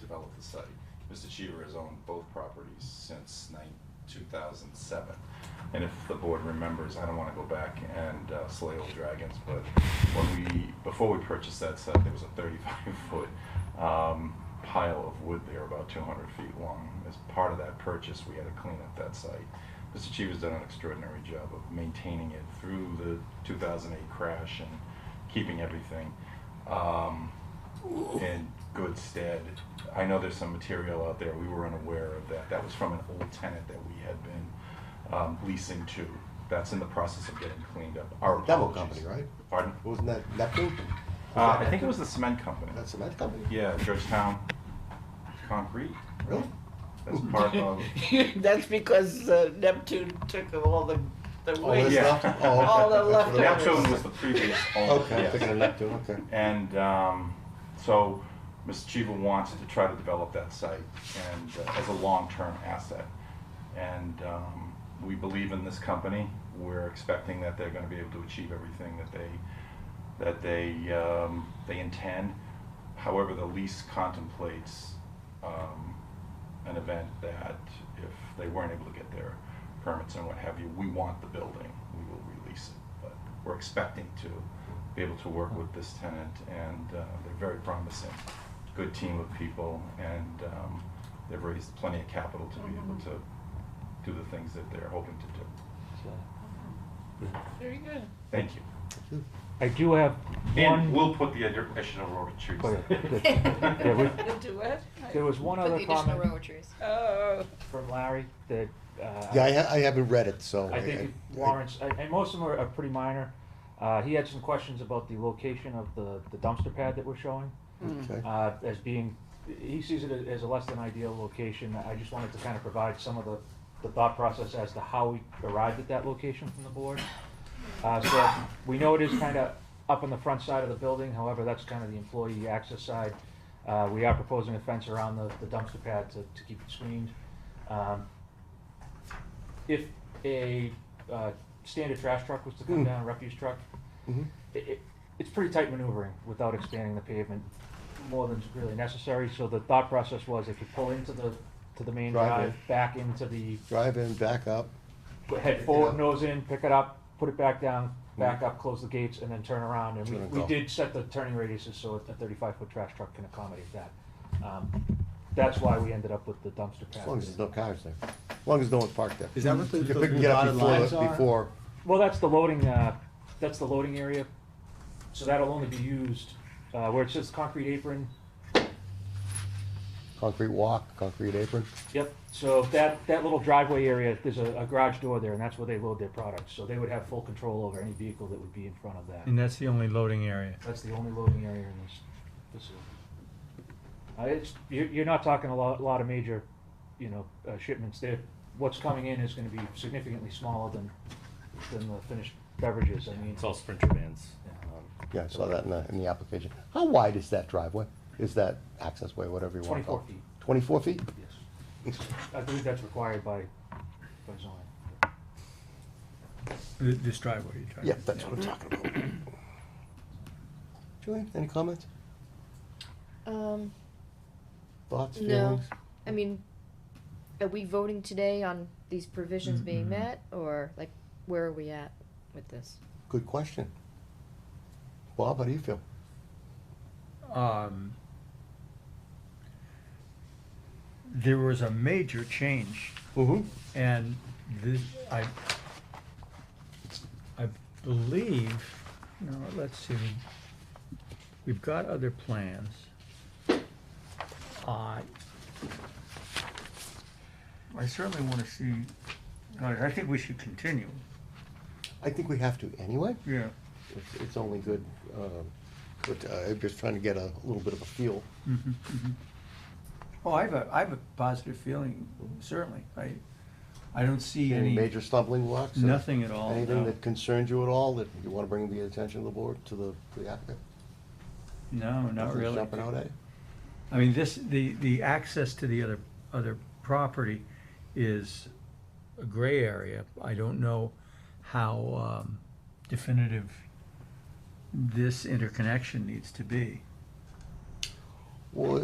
develop the site. Mr. Cheever has owned both properties since nine, two thousand seven. And if the board remembers, I don't wanna go back and uh, slay old dragons, but when we, before we purchased that site, there was a thirty-five foot, um, pile of wood there, about two hundred feet long. As part of that purchase, we had to clean up that site. Mr. Cheever's done an extraordinary job of maintaining it through the two thousand eight crash and keeping everything, um, in good stead. I know there's some material out there, we were unaware of that, that was from an old tenant that we had been, um, leasing to. That's in the process of getting cleaned up. Our Demo apologies. company, right? Pardon? Wasn't that Neptune? Uh, I think it was the cement company. That's a Met company. Yeah, Georgetown Concrete, Really? that's part of, That's because uh, Neptune took of all the, the All this waste. yeah. left? Oh, okay. All the That's what it leftovers. Neptune was the previous owner. Okay, I'm yes. thinking of Neptune, okay. And um, so Mr. Chiva wants to try to develop that site and uh, as a long-term asset. And um, we believe in this company. We're expecting that they're going to be able to achieve everything that they that they um, they intend. However, the lease contemplates um, an event that if they weren't able to get their permits and what have you, we want the building. We will release it, but we're expecting to be able to work with this tenant, and uh, they're very promising. Good team of people, and um, they've raised plenty of capital to be able to do the things that they're hoping to do. Very good. Thank you. I do have And one, we'll put the additional road trees. Oh, yeah. there. Yeah, we- You'll do it? there was one Put the other additional comment row trees. Oh. from Larry that, uh. Yeah, I, ha- I haven't read it, so. I think it I- warrants, and, and most of them are, are pretty minor. Uh, he had some questions about the location of the, the dumpster pad that we're showing, Mm. Okay. uh, as being, he sees it as a less than ideal location. I just wanted to kind of provide some of the, the thought process as to how we arrived at that location from the board. Uh, so we know it is kind of up on the front side of the building, however, that's kind of the employee access side. Uh, we are proposing a fence around the, the dumpster pad to, to keep it screened. Um, if a uh, standard trash truck was to come down, refuse truck, Mhm. i it, it's pretty tight maneuvering without expanding the pavement more than's really necessary. So the thought process was if you pull into the to the main Drive in. drive, back into the Drive in, back up. head it forward, up. nose in, pick it up, put it back down, back up, close the gates, and then turn around. And we, Mm-hmm. Turn and we go. did set the turning radiuses so a thirty-five foot trash truck can accommodate that. Um, that's why we ended up with the dumpster pad. As long as there's no cars there. As long as no one parked there. Is that what the- You can those pick- get up dotted before- lines are? Before, Well, that's the loading, uh, that's the loading area, so that'll only be used, uh, where it says concrete apron, concrete walk, concrete apron. yep. So that, that little driveway area, there's a, a garage door there, and that's where they load their products, so they would have full control over any vehicle that would be in front of that. And that's the only loading area. That's the only loading area in this facility. Uh, it's, you're, you're not talking a lot, lot of major, you know, uh, shipments there. What's coming in is gonna be significantly smaller than, than the finished beverages, I mean. It's all Sprinter vans. Yeah, I saw that in the, in the application. How wide is that driveway? Is that access way, whatever you want to call 24 it? feet, Twenty-four feet? yes. I believe that's required by, by zoning. Th- This driveway you're talking Yeah, about. that's what I'm talking about. Julian, any comments, Um, thoughts, no, feelings? I mean, are we voting today on these provisions being met, or like, where are we at with this? Good question. Bob, how do you feel? Um, There was a major change, Mm-hmm. and this, I, I believe, no, let's see, we've got other plans. I, I certainly want to see, I I think we should continue, I think we have to anyway. yeah. It's, it's only good, um, but uh, I'm just trying to get a little bit of a feel. Mhm, mhm. Oh, I have a, I have a positive feeling, certainly. I, I don't see Any any, major stumbling blocks? or nothing at all. Anything no. that concerns you at all that you want to bring to the attention of the board, to the, the applicant? No, not Nothing's really. Jumping out at you? I mean, this, the, the access to the other, other property is a gray area. I don't know how um, definitive this interconnection needs to be. Well,